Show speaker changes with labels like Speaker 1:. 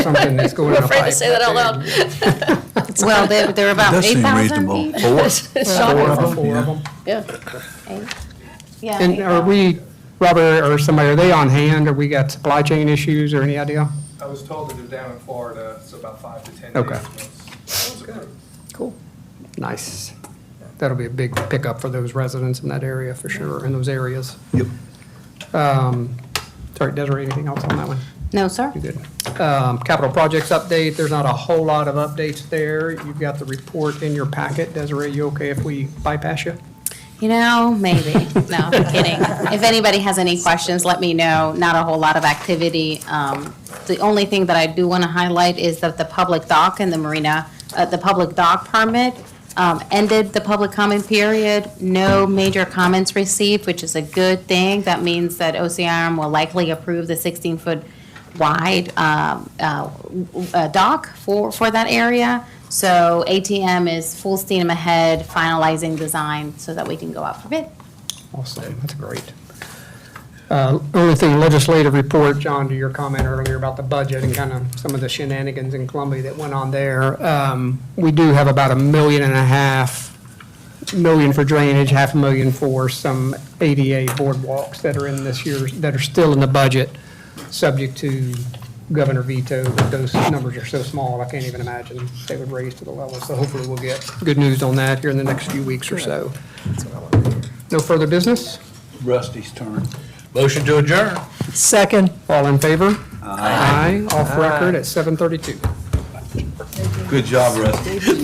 Speaker 1: something that's going
Speaker 2: We're
Speaker 1: in a pipe.
Speaker 2: afraid to say that out loud.
Speaker 3: Well, they're, they're about
Speaker 4: Does
Speaker 3: eight
Speaker 4: seem
Speaker 3: thousand
Speaker 4: reasonable.
Speaker 3: each.
Speaker 2: It's shocking.
Speaker 1: Four of them, four of them.
Speaker 2: Yeah.
Speaker 3: Yeah,
Speaker 1: And are
Speaker 3: 8,000.
Speaker 1: we, Robert or somebody, are they on hand? Or we got supply chain issues or any idea?
Speaker 5: I was told that they're down in Florida, so about five to 10 days.
Speaker 1: Okay.
Speaker 5: once- once approved.
Speaker 2: Cool.
Speaker 1: Nice. That'll be a big pickup for those residents in that area for sure, in those areas.
Speaker 4: Yep.
Speaker 1: Um, Sorry, Desiree, anything else on that one?
Speaker 3: No, sir.
Speaker 1: You good? Um, Capital projects update, there's not a whole lot of updates there. You've got the report in your packet. Desiree, you okay if we bypass you?
Speaker 3: You know, maybe. No, I'm kidding. If anybody has any questions, let me know. Not a whole lot of activity. Um, The only thing that I do want to highlight is that the public dock and the marina, uh, the public dock permit um, ended the public comment period. No major comments received, which is a good thing. That means that OCRM will likely approve the 16-foot wide um, uh, w- w- uh, dock for, for that area. So ATM is full steam ahead finalizing design so that we can go out for bid.
Speaker 1: Awesome, that's great. Uh, Only thing, legislative report, John, to your comment earlier about the budget and kind of some of the shenanigans in Columbia that went on there. Um, We do have about a million and a half, million for drainage, half a million for some ADA boardwalks that are in this year's, that are still in the budget, subject to governor veto, but those numbers are so small, I can't even imagine they would raise to the level. So hopefully we'll get good news on that here in the next few weeks or so. No further business?
Speaker 4: Rusty's turn.
Speaker 6: Motion to adjourn.
Speaker 7: Second.
Speaker 1: All in favor? Aye. Off record at 7:32.
Speaker 4: Good job, Rusty.